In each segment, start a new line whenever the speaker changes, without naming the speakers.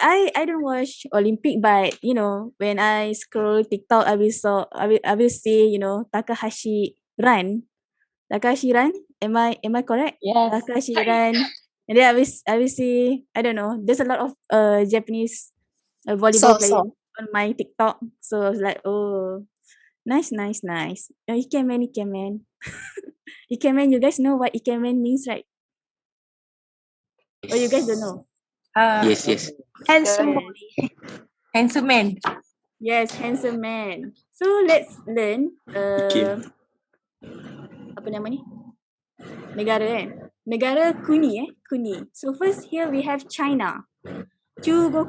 I I don't watch Olympic, but you know, when I scroll TikTok, I will saw I will I will see you know Takahashi run. Takahashi run. Am I am I correct?
Yes.
Takahashi run, and then I will s- I will see. I don't know. There's a lot of uh Japanese uh, volleyball
So
player
so.
on my TikTok, so I was like, oh, nice, nice, nice. Uh, Ikemen, Ikemen, Ikemen. You guys know what Ikemen means, right? Or Oh, you guys don't know?
Ah,
Yes, yes.
Handsome
Yes.
boy.
handsome man.
Yes, handsome man. So let's learn uh,
Okay.
apa nama ni? Negara kan? Negara kuni eh, kuni. So first here we have China. 中国、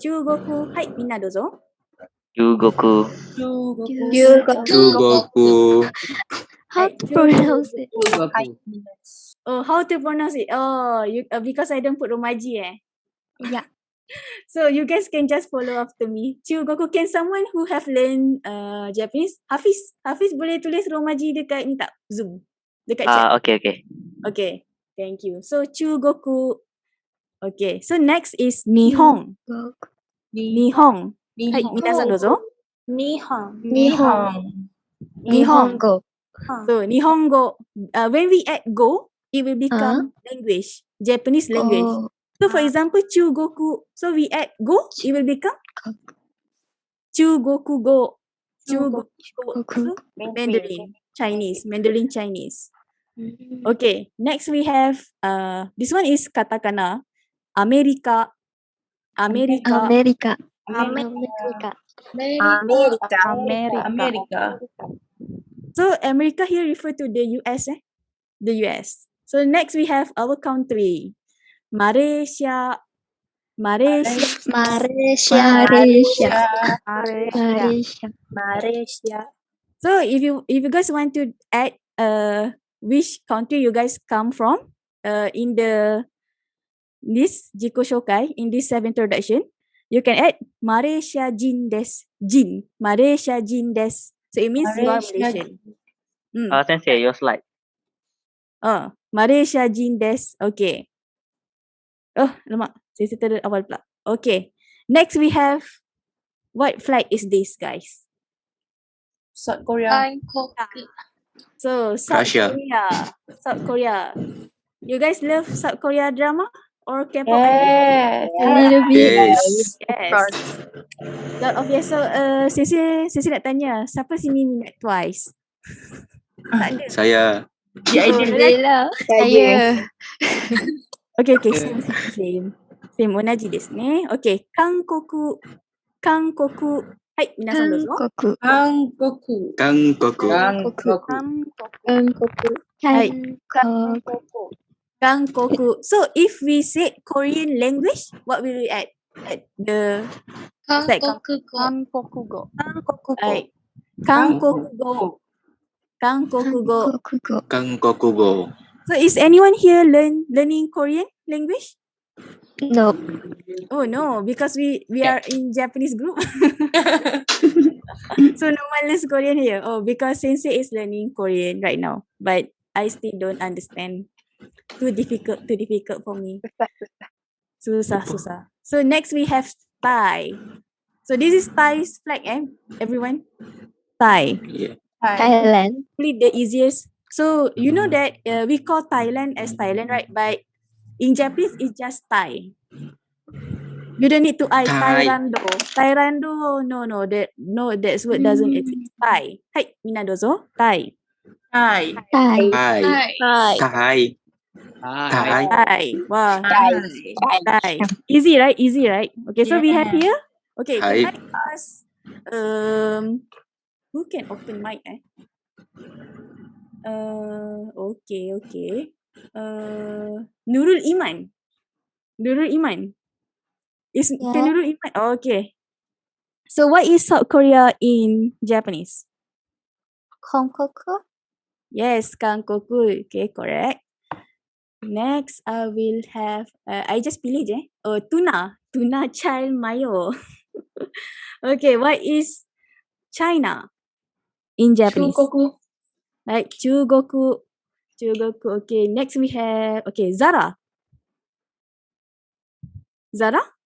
中国、はい、みんなどうぞ。
Jugoku.
中国
Jugoku.
How
Like,
to pronounce it?
Hai.
Oh, how to pronounce it? Oh, you, uh, because I don't put romaji eh.
Yeah.
So you guys can just follow after me. 中国、can someone who have learned uh, Japanese? Hafiz, Hafiz boleh tulis romaji dekat ni tak? Zoom. Dekat chat.
Ah, okay, okay.
Okay, thank you. So Chugoku. Okay, so next is
Hmm.
Nihong. Nihong. Hai, minasan dozo.
Nihon.
Nihon.
Nihongo.
So Nihongo. Uh, when we add go, it will become language, Japanese language.
Uh-huh. Oh,
So for example, Chugoku. So we add go, it will become Chugoku go. Chugoku go.
Chugoku.
So, Mandarin, Chinese, Mandarin Chinese. Okay, next we have uh this one is katakana. America. America.
America.
America.
America.
America.
America.
So America here refer to the US eh? The US. So next we have our country. Malaysia. Malaysia.
Malaysia. Malaysia. Malaysia.
Malaysia.
So if you if you guys want to add uh which country you guys come from uh in the this Jiko Shokai in this seven introduction, you can add Malaysia Jin des Jin. Malaysia Jin des. So it means you are
Malaysia
Malaysian. Mm.
Uh, sensei, your slide.
Oh, Malaysia Jin des. Okay. Oh, lemak. Saya cerita dari awal pula. Okay. Next we have what flight is this, guys?
South Korea.
So, South
Russia.
Korea. South Korea. You guys love South Korea drama or K-pop?
Yes.
A little bit.
Yes.
yes. Lot of yes. So, uh, Sisi, Sisi nak tanya, siapa sini minat Twice? tak ada.
Saya.
Yeah, I
So,
did.
Bella. Saya.
Oh, Okay, okay, same, same, same. Same, 同じですね。Okay, 韓国、韓国。はい、皆さんどうぞ。
Hankoku.
Hangoku.
Kangkoku.
Hankoku.
Hai.
Hankoku.
Gangkoku. So if we say Korean language, what will we add? At the like like Gangkokugo. Gangkokugo.
Hankoku.
Kangkokugo.
So is anyone here learn learning Korean language?
No.
Oh no, because we we are in Japanese group. so no one learns Korean here. Oh, because Sensei is learning Korean right now, but I still don't understand. Too difficult, too difficult for me. Susah, susah. So next we have Thai. So this is Thai's flag, eh? Everyone, Thai.
Yeah.
Hi.
Thailand.
Probably the easiest. So you know that uh, we call Thailand as Thailand, right? But in Japanese, it's just Thai. You don't need to I
Thai.
Thailand. Thailand. No, no, that no, that word doesn't exist. Thai. Hai, minadozo. Thai.
Hi.
Thai.
Thai.
Hi.
Thai. Thai.
Thai. Wow.
Hi.
Thai. Easy, right? Easy, right? Okay, so we have
Yeah.
here. Okay,
Thai.
can I ask um who can open mic eh? Uh okay, okay. Uh Nurul Iman. Nurul Iman. Is can
Yeah.
Nurul Iman? Oh, okay. So what is South Korea in Japanese?
Hankoku.
Yes, Kankoku. Okay, correct. Next, I will have, uh, I just pilih je. Oh, tuna. Tuna child mayo. okay, what is China in Japanese?
Chugoku.
Like, Chugoku. Chugoku. Okay, next we have, okay, Zara. Zara?